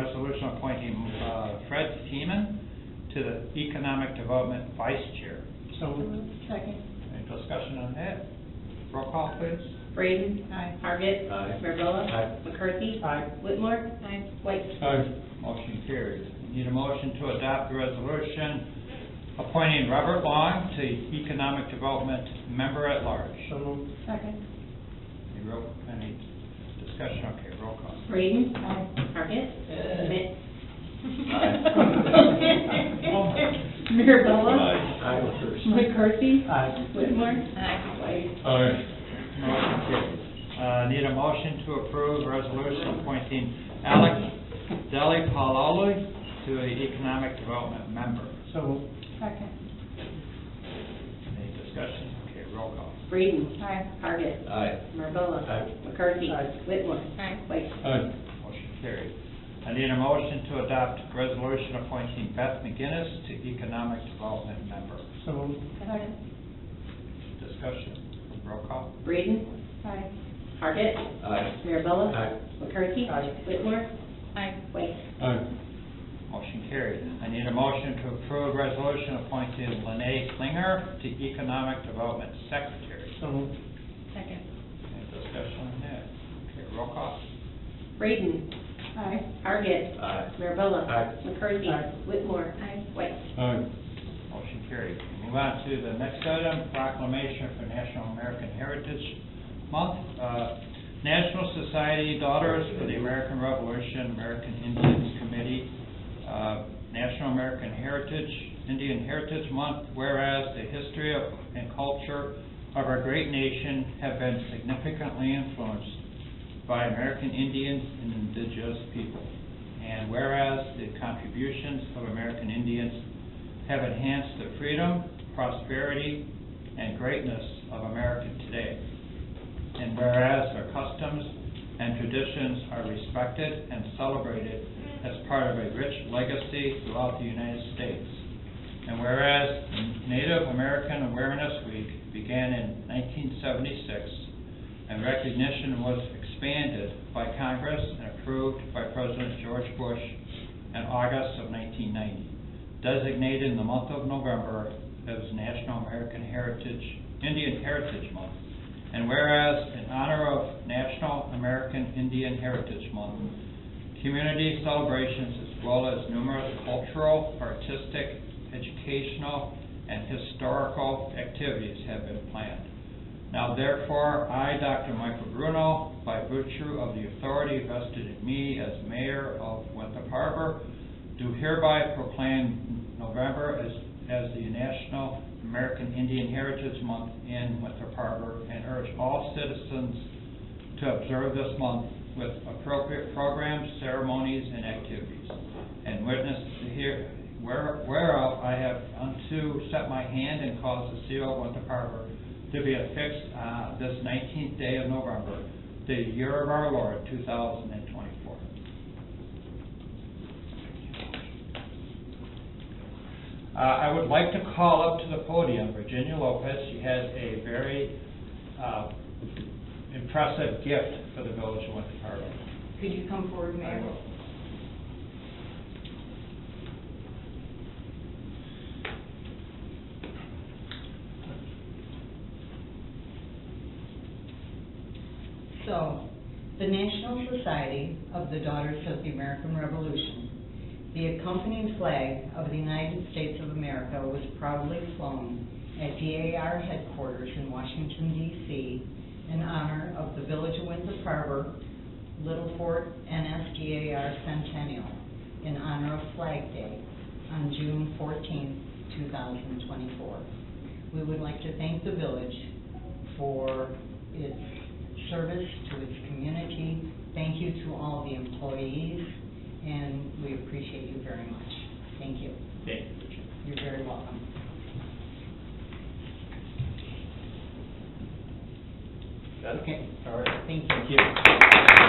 Resolution appointing uh, Fred Teeman to the Economic Development Vice Chair. So moved. Second. Any discussion on that? Roll call, please. Braden. Aye. Target. Aye. Mirabella. Aye. McCarthy. Aye. Whitmore. White. Aye. Motion carries. Need a motion to adopt the resolution appointing Robert Long to Economic Development Member at Large. So moved. Second. Any roll- any discussion? Okay, roll call. Braden. Aye. Target. Schmidt. Aye. Mirabella. I was first. McCarthy. Aye. Whitmore. White. Aye. Motion carries. Uh, Need a motion to approve resolution appointing Alec Deli Paloli to the Economic Development Member. So moved. Second. Any discussion? Okay, roll call. Braden. Aye. Target. Aye. Mirabella. Aye. McCarthy. Aye. Whitmore. Aye. White. Aye. Motion carried. I need a motion to adopt resolution appointing Beth McGinnis to Economic Development Member. So moved. Second. Discussion. Roll call. Braden. Aye. Target. Aye. Mirabella. Aye. McCarthy. Aye. Whitmore. Aye. White. Aye. Motion carried. I need a motion to approve resolution appointing Lene Klinger to Economic Development Secretary. So moved. Second. Any discussion on that? Okay, roll call. Braden. Aye. Target. Aye. Mirabella. Aye. McCarthy. Aye. Whitmore. Aye. White. Aye. Motion carried. Move on to the next item, proclamation for National American Heritage Month. Uh, National Society Daughters for the American Revolution, American Indians Committee, uh, National American Heritage, Indian Heritage Month, whereas the history of- and culture of our great nation have been significantly influenced by American Indians and indigenous people. And whereas the contributions of American Indians have enhanced the freedom, prosperity, and greatness of America today. And whereas their customs and traditions are respected and celebrated as part of a rich legacy throughout the United States. And whereas Native American Awareness Week began in 1976 and recognition was expanded by Congress and approved by President George Bush in August of 1990, designated in the month of November as National American Heritage, Indian Heritage Month. And whereas, in honor of National American Indian Heritage Month, community celebrations as well as numerous cultural, artistic, educational, and historical activities have been planned. Now therefore, I, Dr. Michael Bruno, by virtue of the authority vested in me as mayor of Winthrop Harbor, do hereby proclaim November as, as the National American Indian Heritage Month in Winthrop Harbor and urge all citizens to observe this month with appropriate programs, ceremonies, and activities. And witness here, where- whereof I have unto set my hand and caused the seal of Winter Harbor to be affixed uh, this nineteenth day of November, the year of our Lord, two thousand and twenty-four. Uh, I would like to call up to the podium Virginia Lopez. She has a very uh, impressive gift for the village of Winter Harbor. Could you come forward, I Mayor? will. So, the National Society of the Daughters of the American Revolution, the accompanying flag of the United States of America was proudly flown at DAR headquarters in Washington DC in honor of the Village of Windsor Harbor, Little Fort NSDAR Centennial in honor of Flag Day on June 14, 2024. We would like to thank the village for its service to its community. Thank you to all the employees, and we appreciate you very much. Thank you. Thank you. You're very welcome. Okay, All right. thank you. Thank you.